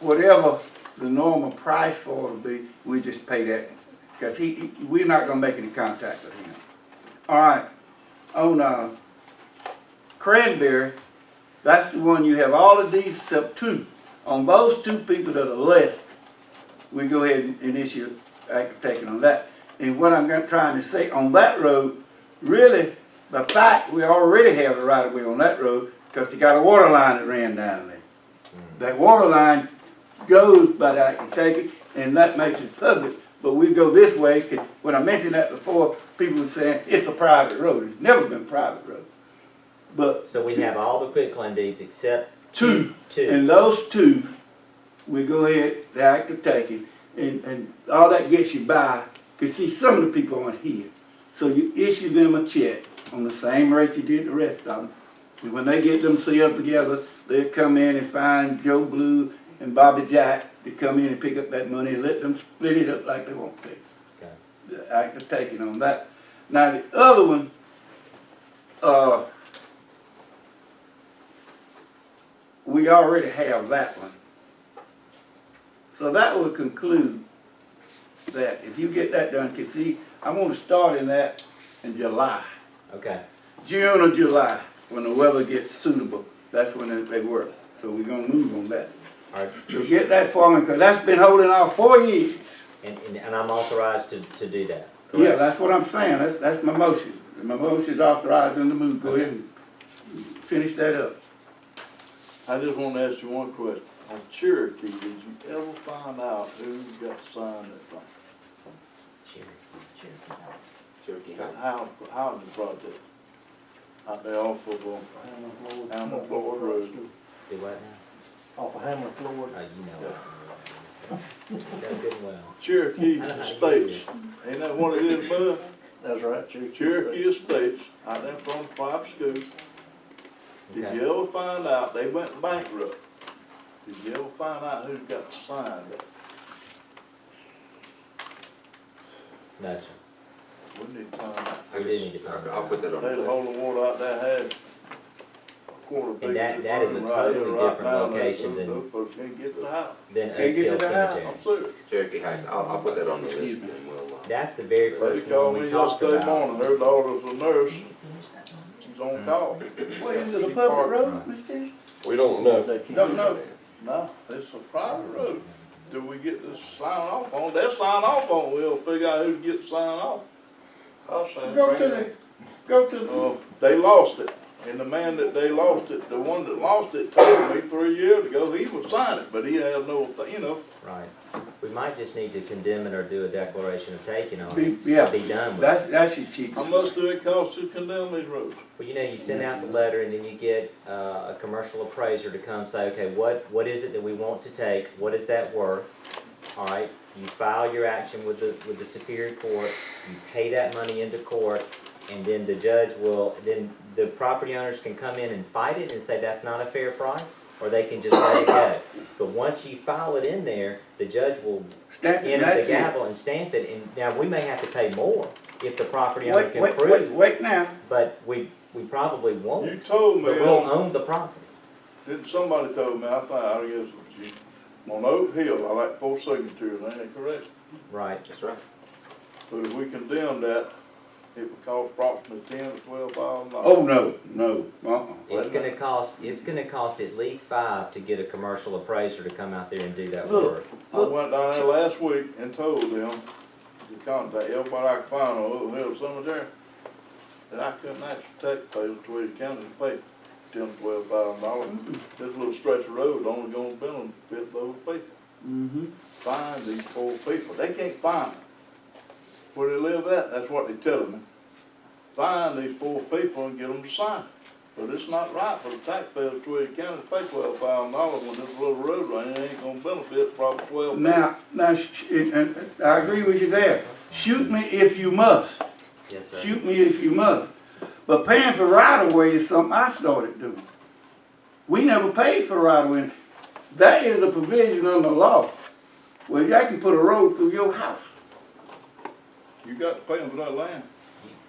whatever the normal price for it will be, we just pay that, because he, he- we're not gonna make any contact with him. All right, on, uh, Cranberry, that's the one you have all of these except two. On those two people that are left, we go ahead and- and issue act taken on that. And what I'm gonna- trying to say, on that road, really, the fact, we already have a right of way on that road, because they got a water line that ran down there. That water line goes by the act take it, and that makes it public, but we go this way, 'cause when I mentioned that before, people were saying, it's a private road, it's never been a private road. But So we have all the quitclaim deeds except two. two. And those two, we go ahead, the act of taking, and, and all that gets you by, cause see, some of the people aren't here. So you issue them a check on the same rate you did the rest of them. And when they get themselves together, they'll come in and find Joe Blue and Bobby Jack to come in and pick up that money and let them split it up like they want to Okay. the act of taking on that. Now, the other one, uh, we already have that one. So that will conclude that, if you get that done, cause see, I wanna start in that in July, Okay, June or July, when the weather gets suitable, that's when they- they work, so we're gonna move on that. all right, So get that for me, cause that's been holding off four years. and, and- and I'm authorized to, to do that. Yeah, correct? that's what I'm saying, that's, that's my motion. My motion's authorizing the move, go ahead and finish that up. I just want to ask you one question. On Cherokee, did you ever find out who got signed that thing? Cherokee, Cherokee. That Howland, Howland project? Out there off of, um, Alma Florida Road. Do what Off of Hammer Floyd. now? Oh, you know. what. Done good and well. Cherokee Estates. Ain't that one of them, bud? That's right, Cherokee. Cherokee Estates, out there from Pop School. Did Okay. you ever find out they went bankrupt? Did you ever find out who got signed that? No, sir. We need to find out. I We do guess- need to find I'll- I'll put that on. They the the list. hole of water out there had a quarter acre. And that- that is a of right totally there, right different now, and location those- than- Those folks can't get to the house. Then Hey, give me Oakdale the house. Cemetery. I'm serious. Cherokee Heights, I'll, I'll put that on the list and we'll, uh, That's the very They first called one me we talked yesterday about. Mm-hmm. morning, her daughter's a nurse, she's on call. What, is it a Keep public parking. road, Mr.? We don't know. They can't- No, no, No, it's a private road. Do we get to sign off on, they'll sign off on, we'll figure out who gets signed off. I'll sign. go to the, go to the, Uh, they lost it, and the man that they lost it, the one that lost it told me three years ago, he would sign it, but he had no, you know, Right. We might just need to condemn it or do a declaration of taking on Be- it. yeah. Be done with it. that's, that's your cheapest. How much do it cost to condemn these roads? Well, you know, you send out the letter and then you get, uh, a commercial appraiser to come say, okay, what, what is it that we want to take? What is that worth? All right, you file your action with the, with the Superior Court, you pay that money into court, and then the judge will, then the property owners can come in and fight it and say that's not a fair price, or they can just let it go. But once you file it in there, the judge will Stamp it, enter the that's it. gavel and stamp it, and now we may have to pay more if the property owner Wait, can wait, prove. wait, wait now, But we, we probably You won't, told but me, we'll on- own the property. didn't somebody told me, I think, I guess, it was you, on Oak Hill, I like four signatures, ain't it correct? Right, that's right. But if we condemn that, it would cost approximately ten to twelve thousand dollars. oh, no, no, uh-uh. it's gonna cost, it's gonna cost at least five to get a commercial appraiser to come out there and do that Look. work. I went down there last week and told them to contact everybody I could find on Oak Hill Cemetery, that I couldn't actually take pay the Tweedy County to pay ten, twelve thousand dollars. This little stretch of road only gonna benefit those people. Mm-hmm. find these poor people. They can't find them. Where they live at, that's what they're telling me. Find these poor people and get them to sign. But it's not right for the taxpayers of Tweedy County to pay twelve thousand dollars when this little road running ain't gonna benefit probably twelve. Now, now, sh- and, and I agree with you there, shoot me if you must. Yes, sir. Shoot me if you must. But paying for right of way is something I started doing. We never paid for right of way. That is a provision under law where you can put a road through your house. You got to pay them for that land.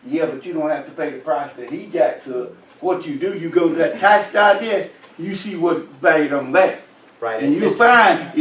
Yeah, but you don't have to pay the price that he jacks up. What you do, you go to that tax digest, you see what's valued on that. Right. And it's you just- find